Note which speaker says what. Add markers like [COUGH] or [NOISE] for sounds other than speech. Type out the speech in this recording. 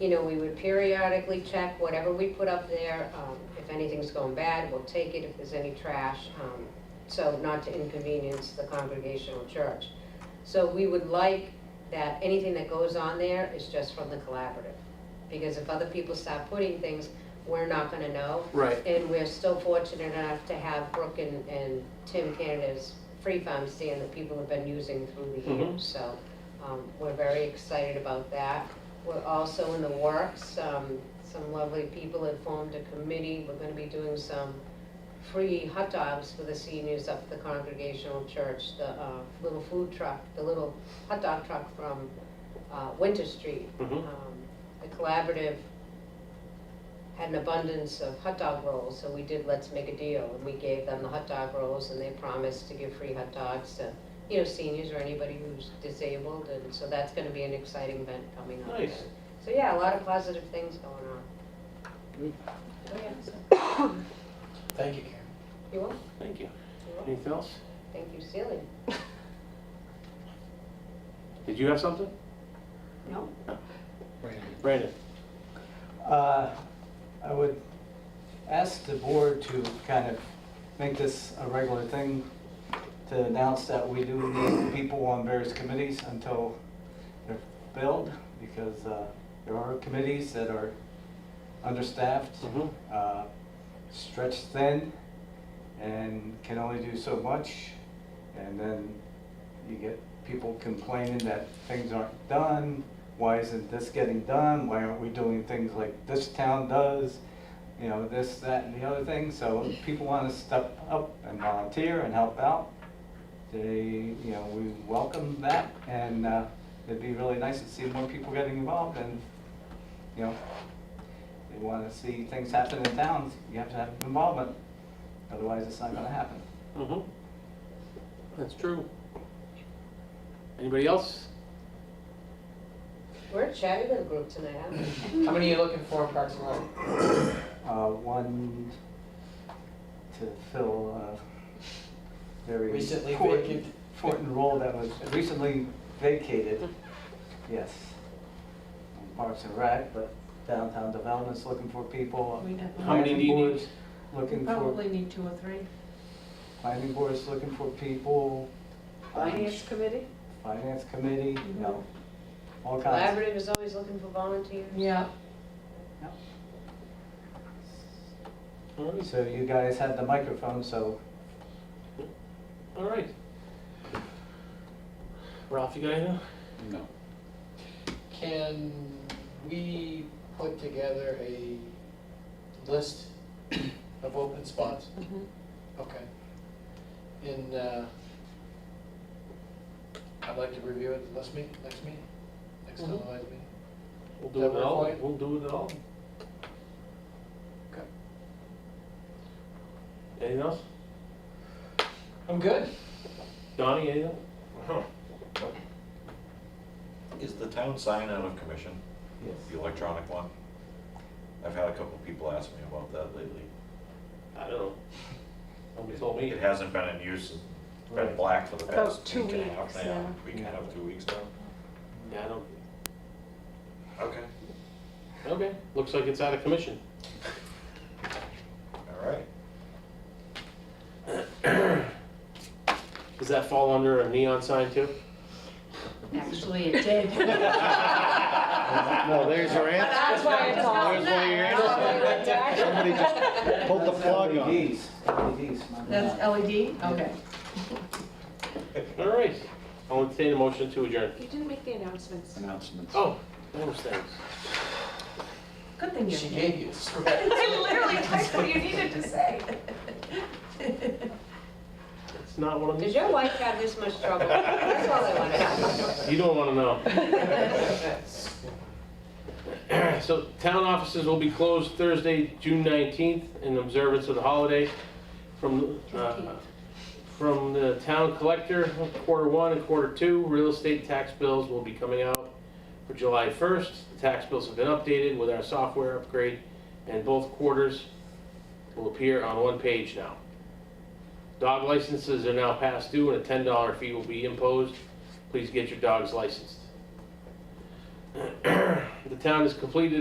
Speaker 1: you know, we would periodically check whatever we put up there. Um, If anything's going bad, we'll take it if there's any trash, um, so not to inconvenience the congregational church. So we would like that anything that goes on there is just from the collaborative. Because if other people start putting things, we're not gonna know.
Speaker 2: Right.
Speaker 1: And we're still fortunate enough to have Brooke and, and Tim Canada's Free Farm stand that people have been using through the
Speaker 2: Mhm.
Speaker 1: years. So, um, we're very excited about that. We're also in the works, um, some lovely people have formed a committee. We're gonna be doing some free hot dogs for the seniors up at the Congregational Church, the, uh, little food truck, the little hot dog truck from, uh, Winter Street
Speaker 2: Mhm.
Speaker 1: um, the collaborative had an abundance of hot dog rolls, so we did Let's Make a Deal, and we gave them the hot dog rolls, and they promised to give free hot dogs to, you know, seniors or anybody who's disabled, and so that's gonna be an exciting event coming up.
Speaker 2: Nice.
Speaker 1: So, yeah, a lot of positive things going on.
Speaker 2: Good.
Speaker 1: Oh, yeah, so,
Speaker 3: Thank you, Karen.
Speaker 1: you will,
Speaker 2: Thank you.
Speaker 1: you will,
Speaker 2: Anything else?
Speaker 1: thank you, Celia.
Speaker 2: Did you have something?
Speaker 1: No?
Speaker 3: Brandon.
Speaker 2: Brandon?
Speaker 3: Uh, I would ask the board to kind of make this a regular thing, to announce that we do need people on various committees until they're filled, because uh, there are committees that are understaffed,
Speaker 2: Mhm.
Speaker 3: uh, stretched thin, and can only do so much. And then you get people complaining that things aren't done, why isn't this getting done, why aren't we doing things like this town does? You know, this, that, and the other thing, so if people wanna step up and volunteer and help out. They, you know, we welcome that, and, uh, it'd be really nice to see more people getting involved, and, you know, they wanna see things happen in towns, you have to have involvement, otherwise it's not gonna happen.
Speaker 2: Mm-hmm. That's true. Anybody else?
Speaker 1: We're a chatty little group tonight, aren't we?
Speaker 4: How many are you looking for in Parks and Rec?
Speaker 3: Uh, one to fill uh very.
Speaker 4: Recently
Speaker 3: important-
Speaker 4: vacant.
Speaker 3: Important role that was recently vacated, yes. Parks and Rec, but downtown development's looking for people.
Speaker 5: We definitely-
Speaker 2: How many do you
Speaker 3: Planning
Speaker 2: need?
Speaker 3: board's Looking for,
Speaker 5: Probably need two or three.
Speaker 3: planning board's looking for people. um,
Speaker 5: Finance Mm-hmm. committee?
Speaker 3: Finance committee, you know, all kinds.
Speaker 1: Collaborative is always looking for volunteers.
Speaker 5: Yeah.
Speaker 2: All right,
Speaker 3: So you guys had the microphone, so
Speaker 2: all right. Ralph, you got anything?
Speaker 6: No.
Speaker 4: Can we put together a list of open spots?
Speaker 5: Mhm.
Speaker 4: Okay. And, uh, I'd like to review it next meet, next meeting, next
Speaker 2: Mhm.
Speaker 4: televised meeting.
Speaker 2: We'll do
Speaker 4: That
Speaker 2: it all,
Speaker 4: work for
Speaker 2: we'll do it all.
Speaker 4: Okay.
Speaker 2: Anything else?
Speaker 4: I'm good.
Speaker 2: Donnie, anything?
Speaker 6: Is the town sign out of commission,
Speaker 3: yes.
Speaker 6: the electronic one? I've had a couple people ask me about that lately.
Speaker 2: I don't know. Nobody told me.
Speaker 6: It hasn't been in use, it's been
Speaker 3: Right.
Speaker 6: black for the
Speaker 5: About
Speaker 6: past
Speaker 5: two
Speaker 6: week and a half
Speaker 5: weeks,
Speaker 6: now.
Speaker 5: yeah.
Speaker 6: Week and a half, two weeks now.
Speaker 2: Yeah, I don't.
Speaker 6: Okay.
Speaker 2: Okay, looks like it's out of commission.
Speaker 6: All right.
Speaker 2: Does that fall under a neon sign too?
Speaker 5: Actually, it did. [LAUGHS]
Speaker 7: No, there's your answer.
Speaker 5: That's why it's on.
Speaker 7: There's where your answer. Somebody just pulled the plug on it.
Speaker 3: LEDs, LEDs, not-
Speaker 5: That's E LED? Okay.
Speaker 2: All right, I'll entertain a motion to adjourn.
Speaker 5: You didn't make the announcements.
Speaker 7: Announcements.
Speaker 2: Oh, those things.
Speaker 5: Good thing you
Speaker 4: She
Speaker 5: did.
Speaker 4: gave you
Speaker 1: [LAUGHS]
Speaker 4: a script.
Speaker 5: [LAUGHS] I literally typed what you needed to say. [LAUGHS]
Speaker 2: It's not one of
Speaker 1: Does
Speaker 2: these.
Speaker 1: your wife have this much trouble? That's all I wanna know.
Speaker 2: You don't want to
Speaker 5: [LAUGHS]
Speaker 2: know. So town offices will be closed Thursday, June 19th, in observance of the holiday from, uh, from the town collector, quarter one and quarter two. Real estate tax bills will be coming out for July 1st. The tax bills have been updated with our software upgrade, and both quarters will appear on one page now. Dog licenses are now past due, and a $10 fee will be imposed please get your dogs licensed. The town has completed